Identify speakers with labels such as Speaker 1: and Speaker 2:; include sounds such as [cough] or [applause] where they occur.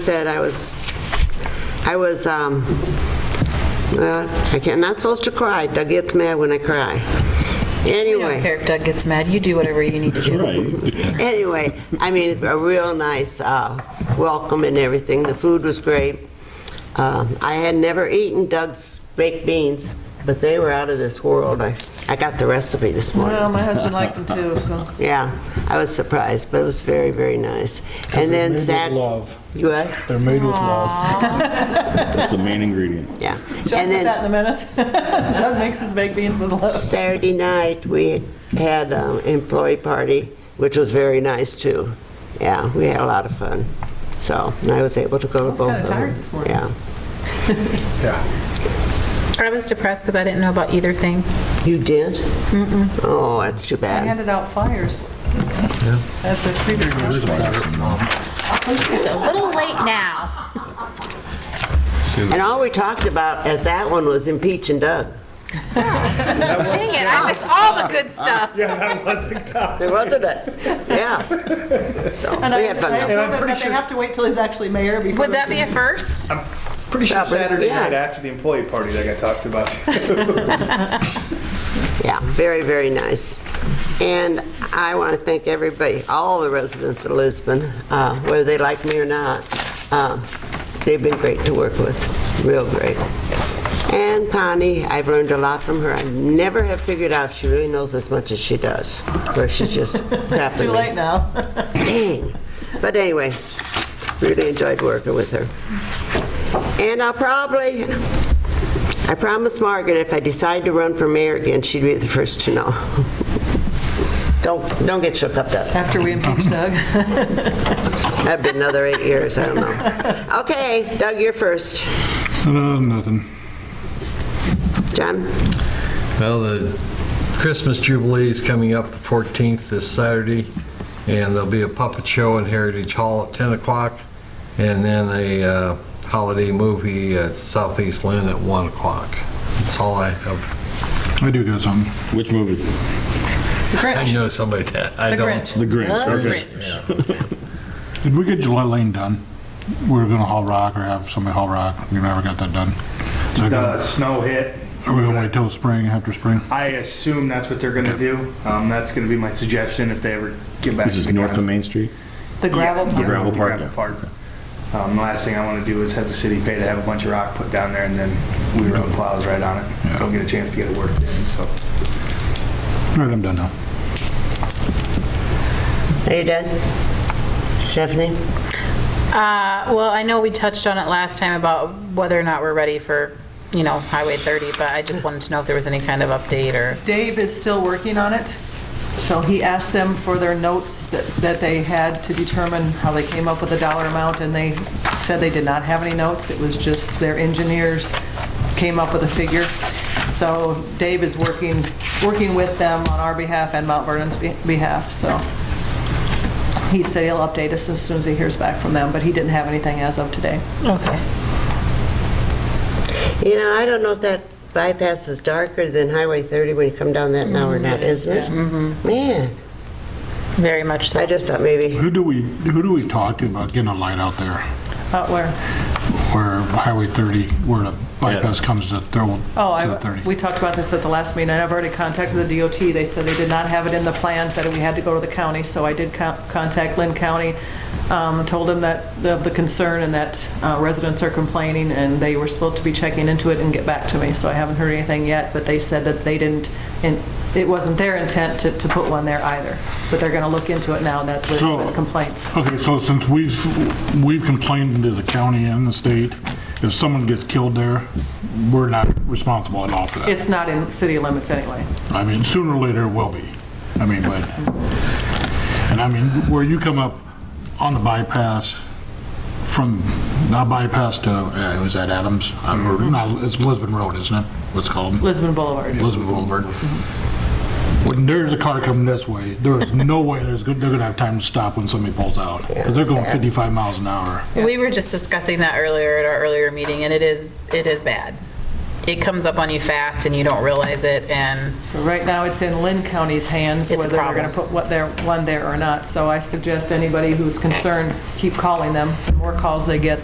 Speaker 1: said I was, I was, um, uh, I can't, not supposed to cry. Doug gets mad when I cry.
Speaker 2: I don't
Speaker 1: Anyway,
Speaker 2: care if Doug gets mad, you do whatever you need to do.
Speaker 3: Right.
Speaker 1: anyway, I mean, a real nice uh, welcome and everything. The food was great. Uh, I had never eaten Doug's baked beans, but they were out of this world. I, I got the recipe this morning.
Speaker 2: Well, my husband liked them too, so.
Speaker 1: Yeah, I was surprised, but it was very, very nice. And
Speaker 4: They're
Speaker 1: then
Speaker 4: made with
Speaker 1: Sat...
Speaker 4: love.
Speaker 1: You what?
Speaker 4: They're made with love.
Speaker 3: That's the main ingredient.
Speaker 1: Yeah.
Speaker 2: Should I
Speaker 1: And
Speaker 2: put
Speaker 1: then-
Speaker 2: that in the minutes? [laughs] Doug makes his baked beans with love.
Speaker 1: Saturday night, we had an employee party, which was very nice, too. Yeah, we had a lot of fun. So, and I was able to go to both
Speaker 2: kinda
Speaker 1: of them.
Speaker 2: tired this morning.
Speaker 1: Yeah.
Speaker 4: Yeah.
Speaker 5: I was depressed because I didn't know about either thing.
Speaker 1: You did? Mm-mm. Oh, that's too
Speaker 2: I
Speaker 1: bad.
Speaker 2: handed out flyers. That's the
Speaker 5: It's a little late now.
Speaker 1: And all we talked about at that one was impeaching Doug.
Speaker 5: Dang it, I missed all the good stuff.
Speaker 1: There wasn't it?
Speaker 2: [laughs]
Speaker 1: Yeah. So,
Speaker 2: And I
Speaker 1: we
Speaker 2: I
Speaker 1: had fun.
Speaker 2: told
Speaker 1: though.
Speaker 2: them that they have to wait till he's actually mayor before.
Speaker 5: Would
Speaker 2: they
Speaker 5: that be a
Speaker 2: can-
Speaker 5: first?
Speaker 6: Pretty sure Saturday
Speaker 1: yeah.
Speaker 6: night after the employee party that got talked about.
Speaker 1: Yeah, very, very nice. And I want to thank everybody, all the residents of Lisbon, uh, whether they like me or not. Uh, They've been great to work with, real great. And Connie, I've learned a lot from her. I never have figured out if she really knows as much as she does, or she's
Speaker 2: [laughs]
Speaker 1: just crapping
Speaker 2: Too
Speaker 1: me.
Speaker 2: late now.
Speaker 1: Dang. But anyway, really enjoyed working with her. And I'll probably, I promised Margaret if I decide to run for mayor again, she'd be the first to know. Don't, don't get shook up that.
Speaker 2: After we impeach Doug.
Speaker 1: That'd be another eight years, I don't know. Okay, Doug, you're first.
Speaker 3: No, nothing.
Speaker 1: John?
Speaker 7: Well, the Christmas Jubilee is coming up the 14th this Saturday, and there'll be a puppet show in Heritage Hall at 10 o'clock, and then a uh, holiday movie at Southeast Lynn at 1 o'clock. That's all I
Speaker 4: [laughs]
Speaker 7: have.
Speaker 4: I do got some.
Speaker 3: Which movie?
Speaker 7: I know somebody that, I
Speaker 2: The
Speaker 7: don't.
Speaker 2: Grinch.
Speaker 3: The Grinch. Okay.
Speaker 4: Did we get Gillette Lane done? We were gonna haul rock or have somebody haul rock. We never got that done. So I
Speaker 6: The
Speaker 4: gotta-
Speaker 6: snow hit.
Speaker 4: Are we gonna wait till spring, after spring?
Speaker 6: I assume that's what they're gonna do. Um, that's gonna be my suggestion if they ever get back.
Speaker 3: This is
Speaker 6: to the
Speaker 3: north of
Speaker 6: ground.
Speaker 3: Main Street?
Speaker 2: The gravel
Speaker 6: Yeah,
Speaker 2: pile.
Speaker 3: gravel
Speaker 6: the
Speaker 3: park,
Speaker 6: gravel
Speaker 3: yeah.
Speaker 6: park. Um, the last thing I wanna do is have the city pay to have a bunch of rock put down there and then we run plows right on it. Don't get a chance to get it worked in, so.
Speaker 4: All right, I'm done now.
Speaker 1: Are you done? Stephanie?
Speaker 5: Uh, Well, I know we touched on it last time about whether or not we're ready for, you know, Highway 30, but I just wanted to know if there was any kind of update or,
Speaker 2: Dave is still working on it, so he asked them for their notes that that they had to determine how they came up with the dollar amount, and they said they did not have any notes, it was just their engineers came up with a figure. So Dave is working, working with them on our behalf and Mount Vernon's be- behalf, so he said he'll update us as soon as he hears back from them, but he didn't have anything as of today.
Speaker 5: okay.
Speaker 1: You know, I don't know if that bypass is darker than Highway 30 when you come down that now or not, isn't it? Man,
Speaker 5: Very much
Speaker 1: I
Speaker 5: so.
Speaker 1: just thought maybe,
Speaker 4: Who do we, who do we talk to about getting a light out there?
Speaker 2: Uh, where?
Speaker 4: Where Highway 30, where the bypass comes to throw,
Speaker 2: Oh,
Speaker 4: to
Speaker 2: I,
Speaker 4: 30?
Speaker 2: we talked about this at the last meeting, and I've already contacted the DOT. They said they did not have it in the plans, that we had to go to the county, so I did co- contact Lynn County, um, told them that, of the concern and that uh, residents are complaining, and they were supposed to be checking into it and get back to me, so I haven't heard anything yet, but they said that they didn't, and it wasn't their intent to, to put one there either, but they're gonna look into it now, that there's
Speaker 4: So-
Speaker 2: been complaints.
Speaker 4: Okay, so since we've, we've complained to the county and the state, if someone gets killed there, we're not responsible at all for that.
Speaker 2: It's not in city limits anyway.
Speaker 4: I mean, sooner or later it will be. I mean, but, and I mean, where you come up on the bypass from, not bypass to, uh, was that Adams? I don't remember. No, it's Lisbon Road, isn't it? What's it called?
Speaker 2: Lisbon Boulevard.
Speaker 4: Lisbon Boulevard. When there's a car coming this way, there is no way there's, go- they're gonna have time to stop when somebody pulls out. Because they're going 55 miles an hour.
Speaker 5: We were just discussing that earlier at our earlier meeting, and it is, it is bad. it comes up on you fast and you don't realize it, and
Speaker 2: So right now, it's in Lynn County's hands,
Speaker 5: It's a
Speaker 2: whether we're going
Speaker 5: problem.
Speaker 2: to put what there, one there or not. So I suggest anybody who's concerned, keep calling them. The more calls they get,